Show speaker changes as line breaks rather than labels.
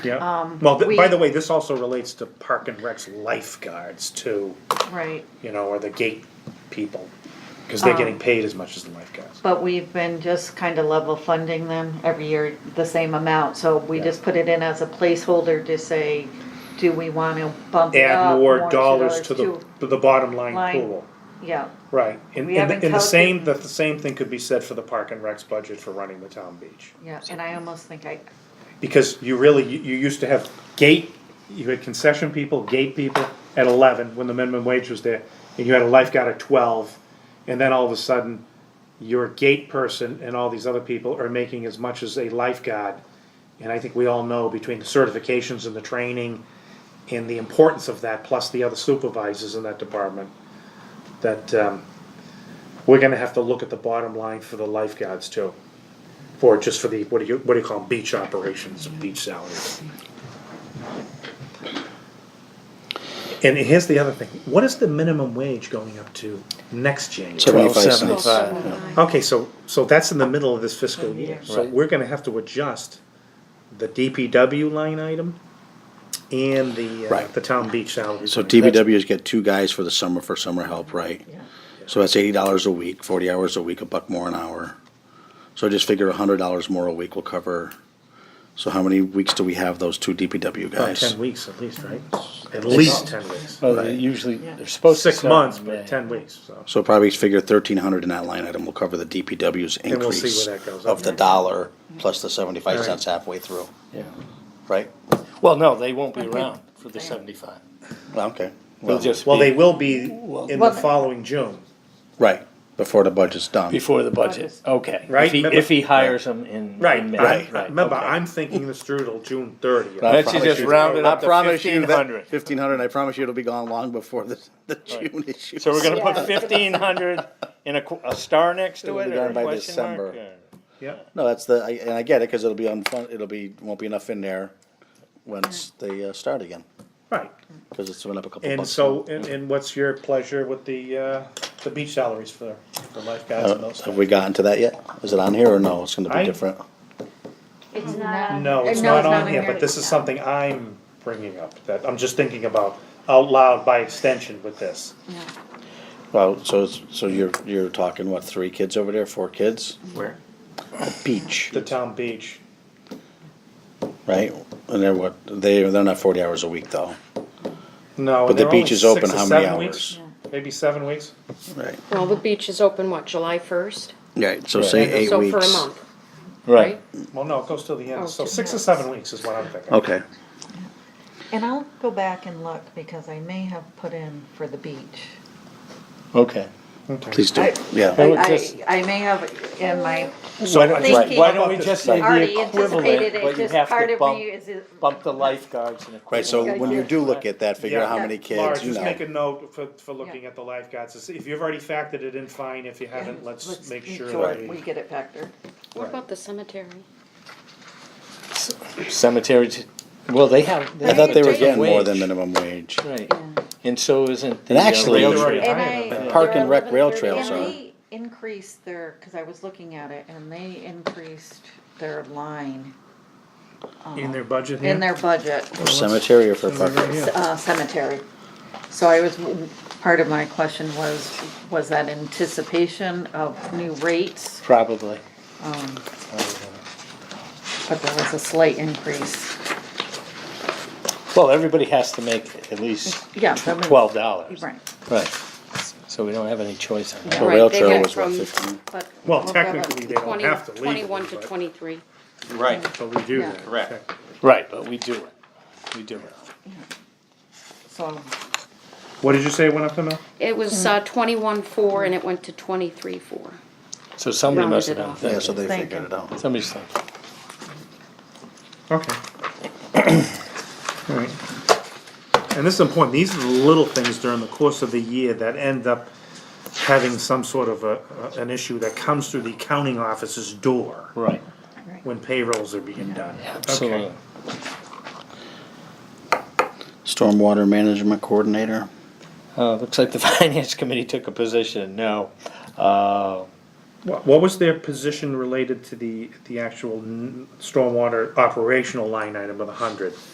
Yeah,
Um,
well, th- by
we-
the way, this also relates to Park and Rec's lifeguards too,
Right,
you know, or the gate people. Cause
Um,
they're getting paid as much as the lifeguards.
but we've been just kind of level funding them every year, the same amount, so we
Yeah.
just put it in as a placeholder to say, do we want to bump it
Add
up?
more dollars to the, to the bottom line
Line.
pool,
Yeah,
right, and,
We
and the-
haven't
and the same, that
calculated-
the same thing could be said for the Park and Rec's budget for running the town beach.
yeah, and I almost think I,
Because you really, you, you used to have gate, you had concession people, gate people at eleven, when the minimum wage was there, and you had a lifeguard at twelve, and then all of a sudden, your gate person and all these other people are making as much as a lifeguard. And I think we all know between the certifications and the training and the importance of that, plus the other supervisors in that department, that, um, we're gonna have to look at the bottom line for the lifeguards too. For, just for the, what do you, what do you call them, beach operations, beach salaries. And here's the other thing, what is the minimum wage going up to next January?
Seventy-five
Twelve
cents.
seventy-five.
Okay, so, so that's in the middle of this fiscal year, so
Right.
we're gonna have to adjust the DPW line item and the, uh,
Right.
the town beach salary.
So
line.
DBW's get two guys for the summer for summer help, right? So that's eighty dollars a week, forty hours a week, a buck more an hour. So I just figure a hundred dollars more a week will cover. So how many weeks do we have those two DPW
About
guys?
Ten weeks at least, right? At least ten weeks,
Well, they usually, they're supposed to.
six
start in
months,
May.
but ten weeks, so.
So probably figure thirteen hundred in that line item will cover the DPW's
And we'll see
increase
where that goes up.
of the dollar plus the seventy-five
Alright.
cents halfway through,
Yeah.
right?
Well, no, they won't be around for the
Yeah.
seventy-five.
Okay.
They'll
Well,
just
Well, they
be
will be in the
Well-
following June,
right, before the budget's done.
before the budget,
August.
okay.
Right,
If he,
remember-
if he hires them in.
right,
in May,
I,
Right,
I- remember,
okay.
I'm thinking this through till June thirtieth.
Right.
Why don't you
promise
just
you-
round it
I
up to
promise you
fifteen
that
hundred?
Fifteen hundred, I promise you it'll be gone long before the, the June issue.
So we're gonna
Yeah.
put fifteen hundred in a, qu- a star next to
It'll
it
be
or
done
a
by
question mark?
December.
or-
Yep,
No, that's the, I- and I get it, cause it'll be unfun, it'll be, won't be enough in there once they uh, start again,
right,
cause it's went up a couple bucks.
and so, and, and what's your pleasure with the, uh, the beach salaries for, for lifeguards and
Uh,
those?
Have we gotten to that yet? Is it on here or no? It's gonna
I-
be different.
It's not. on-
No,
or
it's not
in
on here, but this is something I'm bringing up, that I'm just thinking about out loud by extension with this.
Well, so, it's- so you're, you're talking, what, three kids over there, four kids?
Where?
Beach,
The town beach,
right? And they're what, they, they're not forty hours a week though,
no, and
But the
they're only
beach is open
six or
how many
seven weeks,
hours?
Maybe seven weeks,
right?
Well, the beach is open, what, July first?
Right, so say
And
eight
So for a
weeks.
month,
Right.
right?
well, no, it goes till the
Oh,
end, so
two
six or
months.
seven weeks is what I'm thinking.
Okay,
and I'll go back and look, because I may have put in for the beach.
Okay.
please do,
I-
yeah.
would
I,
just-
I I may have in my,
Why don't,
Thinking-
why don't we just say
already
the equivalent,
anticipated it,
but you
just
have
part
to
of me
bump,
is. it-
bump the lifeguards and equipment.
Right, so when you do look at that, figure out how
Yeah.
many
Laura,
kids, you
just
know.
make a note for, for looking at the lifeguards, to see- if you've already factored it in, fine, if you haven't, let's make sure that
We
we.
get it factored.
What about the cemetery?
Cemetery, t- well, they have.
I thought they were getting more
wage.
than minimum wage.
Right, and so isn't the
And
uh,
actually-
rail
They're already
trail.
And
hiring
I-
them.
Park
They're
and rec rail
11:30
And
trails are.
they increased their, cause I was looking at it, and they increased their line
In their budget
in their budget,
For cemetery or for park?
uh, cemetery. So I was, part of my question was, was that anticipation of new rates?
Probably.
But there was a slight increase.
Well, everybody has to make at least
Yeah. that
twelve dollars.
was- Right,
Right, so we don't have any choice on
The
Yeah.
that.
rail
Right, they
trail
get
was what,
from-
fifteen?
but.
Well,
we'll grab it.
technically, they don't
Twenty,
have to legally,
twenty-one to
but,
twenty-three.
Right.
but we do
Yeah.
that.
Correct.
Okay.
Right, but we do it, we do it.
So,
What did you say went up to now?
It was, uh, twenty-one-four and it went to twenty-three-four.
So somebody
Rounded
must have
it
done
off.
Yeah,
that,
so they
Thank
figured
you.
it out.
somebody's done.
Okay. Alright. And this is important, these are the little things during the course of the year that end up having some sort of a, a- an issue that comes through the accounting office's door
Right.
when payrolls are being done.
Absolutely.
Okay.
Stormwater management coordinator,
Uh, looks like the finance committee took a position, no. Uh,
What what was their position related to the, the actual n- stormwater operational line item of the hundred?